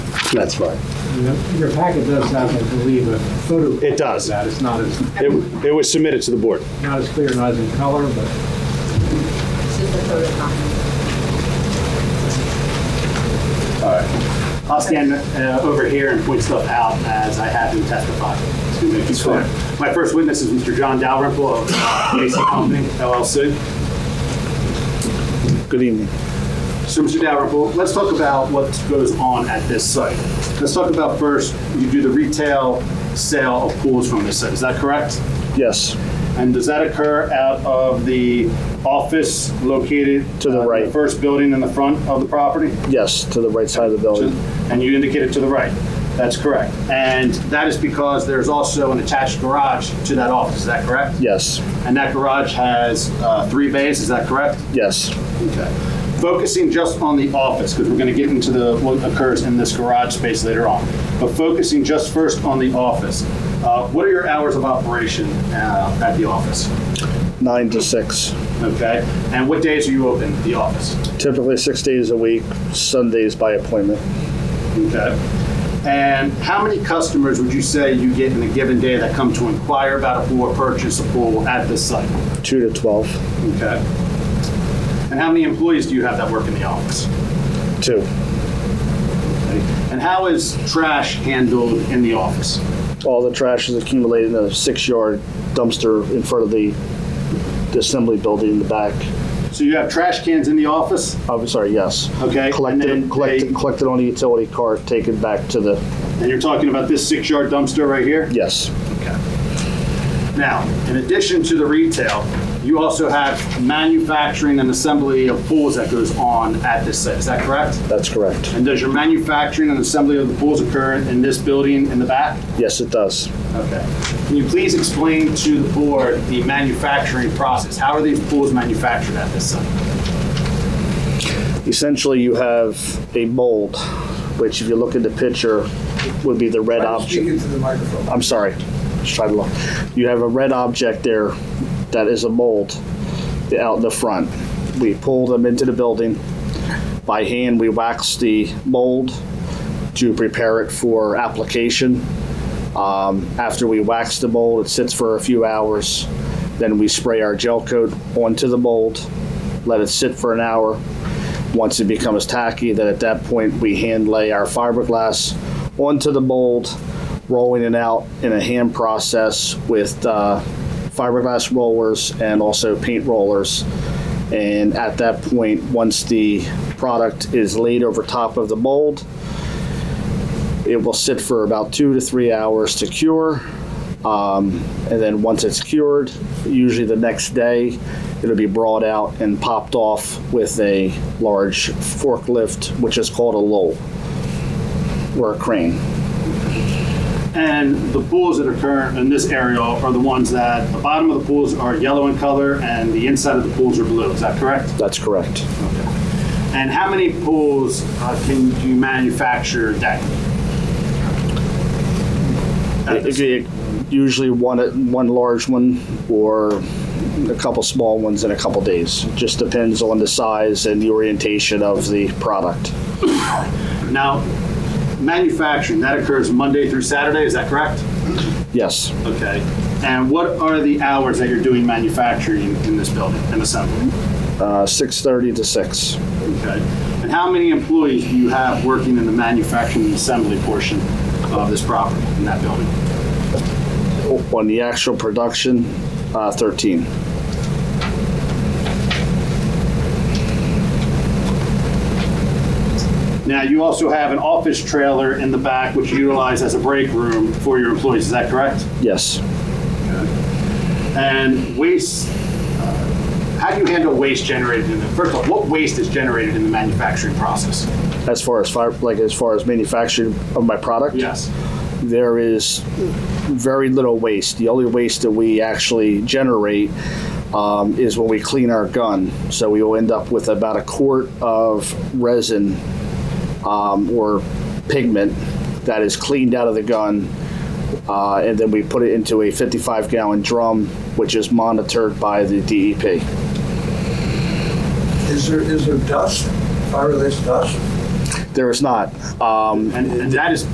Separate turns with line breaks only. That's right.
Your packet does have, I believe, a photo.
It does.
of That it's not as,
It, it was submitted to the board.
not as clear, not as in color, but
This is the photocopy.
I'll stand uh, over here and point stuff out as I have him testify. to make this clear. My first witness is Mr. John Dalrymple of Macy Company LLC.
Good evening.
So, Mr. Dalrymple, let's talk about what goes on at this site. Let's talk about first, you do the retail sale of pools from this site, is that correct?
Yes,
And does that occur out of the office located?
To the
uh,
right.
First building in the front of the property?
yes, to the right side of the building.
and you indicated to the right. That's correct. And that is because there's also an attached garage to that office, is that correct?
Yes,
And that garage has uh, three bays, is that correct?
yes,
Okay. Focusing just on the office, because we're going to get into the, what occurs in this garage space later on. But focusing just first on the office, uh, what are your hours of operation uh, at the office?
nine to six.
Okay. And what days are you open, at the office?
Typically six days a week, Sundays by appointment.
Okay. And how many customers would you say you get in a given day that come to inquire about a pool or purchase a pool at this site?
Two to 12,
Okay. And how many employees do you have that work in the office?
two,
Okay. And how is trash handled in the office?
All the trash is accumulated in a six-yard dumpster in front of the the assembly building in the back.
So you have trash cans in the office?
I'm sorry, yes.
Okay, and
Collected,
then
collected,
they-
collected on a utility cart, taken back to the,
And you're talking about this six yard dumpster right here?
yes,
Okay. Now, in addition to the retail, you also have manufacturing and assembly of pools that goes on at this site. Is that correct?
that's correct.
And does your manufacturing and assembly of the pools occur in this building in the back?
Yes, it does.
Okay. Can you please explain to the board the manufacturing process? How are these pools manufactured at this site?
Essentially, you have a mold, which if you look at the picture, would be the red object.
Speak into the microphone.
I'm sorry. Just try to look. You have a red object there that is a mold out in the front. We pull them into the building. By hand, we wax the mold to prepare it for application. Um, after we wax the mold, it sits for a few hours. Then we spray our gel coat onto the mold, let it sit for an hour. Once it becomes tacky, then at that point, we hand lay our fiberglass onto the mold, rolling it out in a hand process with uh, fiberglass rollers and also paint rollers. And at that point, once the product is laid over top of the mold, it will sit for about two to three hours to cure. Um, and then once it's cured, usually the next day, it'll be brought out and popped off with a large forklift, which is called a loll or a crane.
And the pools that occur in this area are the ones that the bottom of the pools are yellow in color and the inside of the pools are blue. Is that correct?
That's correct.
And how many pools uh, can you manufacture that?
It- it- it- usually one one large one or a couple small ones in a couple days. Just depends on the size and the orientation of the product.
Now, manufacturing, that occurs Monday through Saturday, is that correct?
Yes,
Okay. And what are the hours that you're doing manufacturing in this building and assembly?
uh, six thirty to six.
Okay. And how many employees do you have working in the manufacturing and assembly portion of this property in that building?
On the actual production, uh, thirteen.
Now, you also have an office trailer in the back which you utilize as a break room for your employees, is that correct?
Yes,
And waste, uh, how do you handle waste generated in the, first of all, what waste is generated in the manufacturing process?
as far as fire, like as far as manufacturing of my product.
Yes.
there is very little waste. The only waste that we actually generate um, is when we clean our gun. So we will end up with about a quart of resin um, or pigment that is cleaned out of the gun. Uh, and then we put it into a 55 gallon drum, which is monitored by the E DEP.
Is there, is there dust, fire-related dust?
There is not. Um,
And and that is